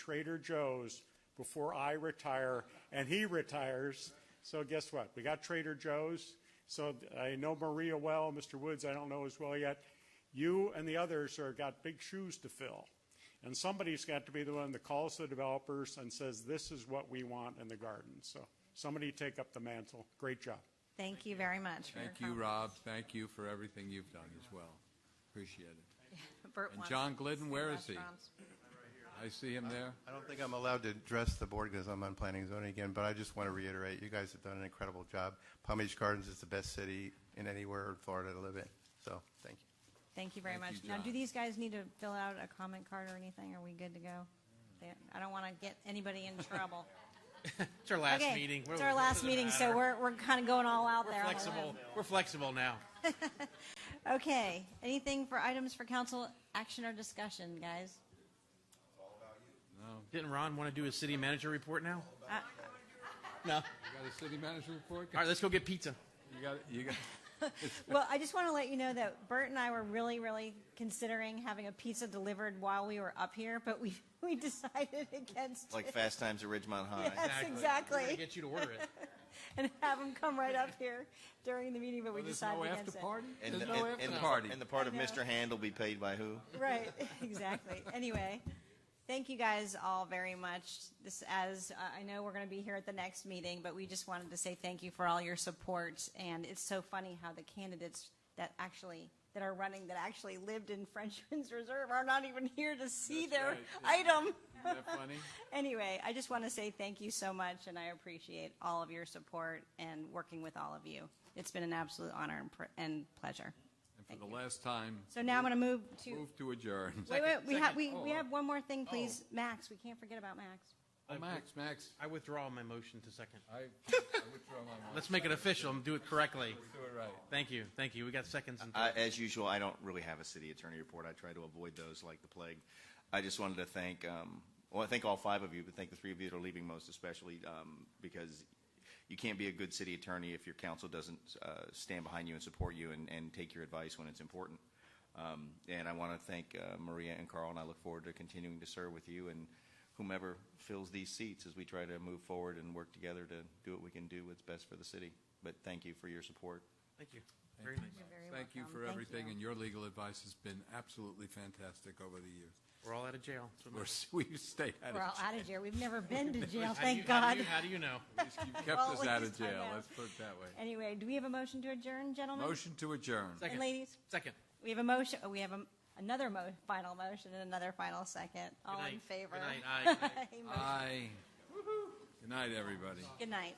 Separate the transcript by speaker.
Speaker 1: Trader Joe's before I retire and he retires. So guess what? We got Trader Joe's. So I know Maria well, Mr. Woods I don't know as well yet. You and the others are got big shoes to fill. And somebody's got to be the one that calls the developers and says, this is what we want in the garden. So somebody take up the mantle. Great job.
Speaker 2: Thank you very much. for your
Speaker 3: Thank you,
Speaker 2: comments.
Speaker 3: Rob. Thank you for everything you've done as well. Appreciate it.
Speaker 2: Bert
Speaker 3: And
Speaker 2: wants
Speaker 3: John Glidden,
Speaker 2: some
Speaker 3: where is he?
Speaker 2: restaurants.
Speaker 3: I see him there.
Speaker 4: I don't think I'm allowed to address the board because I'm on planning and zoning again, but I just want to reiterate, you guys have done an incredible job. Palm Beach Gardens is the best city in anywhere in Florida to live in, so, thank you.
Speaker 2: Thank you very much.
Speaker 3: Thank you,
Speaker 2: Now, do
Speaker 3: John.
Speaker 2: these guys need to fill out a comment card or anything? Are we good to go? They- I don't want to get anybody in trouble.
Speaker 5: It's our last
Speaker 2: Okay,
Speaker 5: meeting.
Speaker 2: It's our last meeting, so we're, we're kind of going all out
Speaker 5: We're
Speaker 2: there. on the
Speaker 5: flexible. We're flexible now.
Speaker 2: limb. Okay, anything for items for council action or discussion, guys?
Speaker 5: Didn't Ron want to do a city manager report now?
Speaker 2: Uh,
Speaker 5: No. All
Speaker 3: You got a city manager report?
Speaker 5: right, let's go get pizza.
Speaker 3: You got, you got,
Speaker 2: Well, I just want to let you know that Bert and I were really, really considering having a pizza delivered while we were up here, but we, we decided against
Speaker 6: Like
Speaker 2: it.
Speaker 6: Fast Times at Ridgemont High.
Speaker 2: Yes,
Speaker 5: We're gonna
Speaker 2: exactly.
Speaker 5: get you to order it.
Speaker 2: And have them come right up here during the meeting, but we
Speaker 3: there's
Speaker 2: decided
Speaker 3: no after
Speaker 2: against it.
Speaker 3: party?
Speaker 6: And,
Speaker 3: There's
Speaker 6: the-
Speaker 3: no
Speaker 6: and-
Speaker 3: after
Speaker 6: and-
Speaker 3: party.
Speaker 6: And the part of
Speaker 2: I know.
Speaker 6: Mr. Hand will be paid by who?
Speaker 2: Right, exactly. Anyway, thank you guys all very much. This, as uh, I know, we're going to be here at the next meeting, but we just wanted to say thank you for all your support. And it's so funny how the candidates that actually that are running that actually lived in Frenchman's Reserve are not even here to see
Speaker 3: That's
Speaker 2: their
Speaker 3: right.
Speaker 2: item.
Speaker 3: Isn't that funny?
Speaker 2: Anyway, I just want to say thank you so much, and I appreciate all of your support and working with all of you. It's been an absolute honor and, pr- and pleasure.
Speaker 3: And for the last time,
Speaker 2: So now I'm going to move Oh. to.
Speaker 3: move to adjourn.
Speaker 2: Wait, wait, we have,
Speaker 5: second.
Speaker 2: we, we have one more thing, please. Max, we can't forget about Max.
Speaker 3: Oh, Max, Max,
Speaker 5: I withdraw my motion to second.
Speaker 3: I I withdraw my motion.
Speaker 5: Let's make it official and do it correctly.
Speaker 3: Do it right.
Speaker 5: Thank you. Thank you. We got seconds. And
Speaker 6: I, as usual, I don't really have a city attorney report. I try to avoid those like the plague. I just wanted to thank, um, well, I thank all five of you, but thank the three of you that are leaving most especially um, because you can't be a good city attorney if your council doesn't uh, stand behind you and support you and, and take your advice when it's important. Um, and I want to thank uh, Maria and Carl, and I look forward to continuing to serve with you and whomever fills these seats as we try to move forward and work together to do what we can do what's best for the city. But thank you for your support.
Speaker 5: Thank you. Very nice.
Speaker 2: very
Speaker 3: Thank you
Speaker 2: welcome.
Speaker 3: for
Speaker 2: Thank
Speaker 3: everything,
Speaker 2: you.
Speaker 3: and your legal advice has been absolutely fantastic over the years.
Speaker 5: We're all out of jail. That's what
Speaker 3: We're,
Speaker 5: matters.
Speaker 3: we've stayed out
Speaker 2: We're all
Speaker 3: of,
Speaker 2: out of jail. We've never been to jail,
Speaker 5: How do you-
Speaker 2: thank
Speaker 5: how
Speaker 2: God.
Speaker 5: do you- How do you know?
Speaker 3: you've kept
Speaker 2: Well,
Speaker 3: us
Speaker 2: we
Speaker 3: out
Speaker 2: just-
Speaker 3: of
Speaker 2: I
Speaker 3: jail,
Speaker 2: know.
Speaker 3: let's put it that way.
Speaker 2: Anyway, do we have a motion to adjourn, gentlemen?
Speaker 3: Motion to adjourn.
Speaker 2: And
Speaker 5: Second.
Speaker 2: ladies,
Speaker 5: Second.
Speaker 2: we have a motion, oh, we have a- another mo, final motion and another final second. All
Speaker 5: Good
Speaker 2: in
Speaker 5: night.
Speaker 2: favor? Uh.
Speaker 5: Good night. Aye.
Speaker 2: Aye.
Speaker 3: Aye. Good night, everybody.
Speaker 2: Good night.